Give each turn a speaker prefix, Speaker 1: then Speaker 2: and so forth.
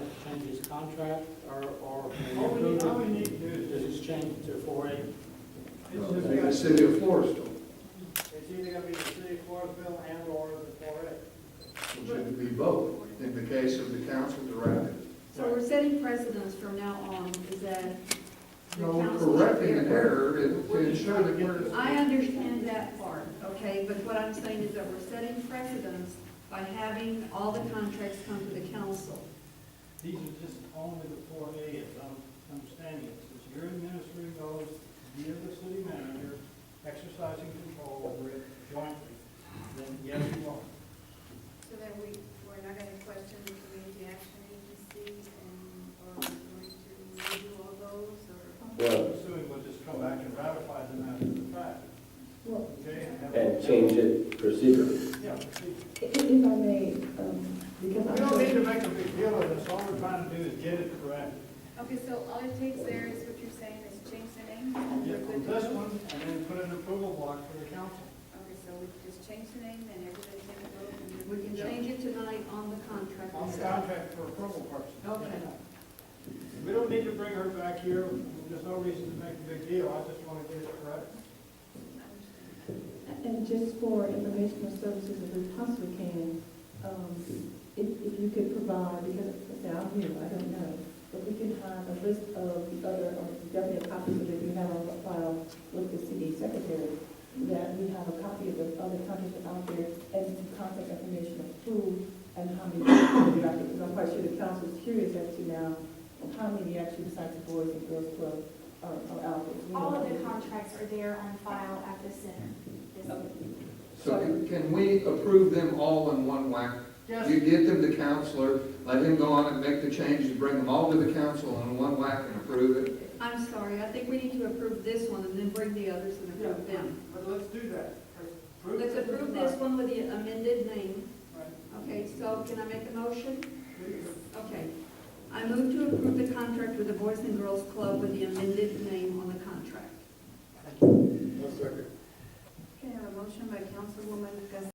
Speaker 1: the contract or, or?
Speaker 2: All we need, all we need to do is
Speaker 1: Does this change to four A?
Speaker 2: It's
Speaker 3: Well,
Speaker 2: just
Speaker 3: The
Speaker 2: got-
Speaker 3: city of Florisville,
Speaker 2: it's either gonna be the city of Floresville and or the four A.
Speaker 3: which would be both, in the case of the council directed.
Speaker 4: So we're setting precedents from now on, is that? the
Speaker 3: No, we're
Speaker 4: council-
Speaker 3: correcting an error and to ensure that we're,
Speaker 4: I understand that part, okay, but what I'm saying is that we're setting precedents by having all the contracts come to the council.
Speaker 2: These are just only the four A, as I'm understanding it, since you're administering those via the city manager, exercising control over it jointly, then yes, you are.
Speaker 5: So that we, we're not gonna question the community action agencies and, or we're going to review all those, or?
Speaker 6: Well,
Speaker 2: Assuming we'll just come back and ratify them after the fact. Okay? have-
Speaker 6: and change it procedurally.
Speaker 2: Yeah, proceed.
Speaker 7: If if I may, um, because
Speaker 2: we
Speaker 7: I'm.
Speaker 2: don't need to make a big deal of this, all we're trying to do is get it correct.
Speaker 5: Okay, so all it takes there is what you're saying is change the name?
Speaker 2: Get from this one, and then put an approval block for the council.
Speaker 5: Okay, so we just change the name and everybody can vote and
Speaker 4: We can change it tonight on the contract.
Speaker 2: On the
Speaker 4: itself.
Speaker 2: contract for approval purposes.
Speaker 4: Okay.
Speaker 2: We don't need to bring her back here, there's no reason to make a big deal, I just want to get it correct.
Speaker 7: And just for informational services, if we possibly can, um, if, if you could provide, because now I'm new, I don't know, but we can find a list of the other, or definitely a copy of it, you have on file with the city secretary, that we have a copy of the other contracts out there, and some contact information of who and how many, because I'm quite sure the council is curious as to now, how many actually besides the boys and girls club are, are out there. We
Speaker 8: All of the
Speaker 7: don't know.
Speaker 8: contracts are there on file at the center.
Speaker 3: so can- can we approve them all in one whack? You get them to counselor, let him go on and make the changes, bring them all to the council in one whack and approve it.
Speaker 4: I'm sorry, I think we need to approve this one and then bring the others and approve them.
Speaker 2: But let's do that. Prove
Speaker 4: Let's
Speaker 2: that
Speaker 4: approve
Speaker 2: it's
Speaker 4: this one with the amended name.
Speaker 2: right.
Speaker 4: Okay, so can I make a motion?
Speaker 2: Please.
Speaker 4: Okay. I move to approve the contract with the Boys and Girls Club with the amended name on the contract.
Speaker 5: Okay, I have a motion by Councilwoman Gus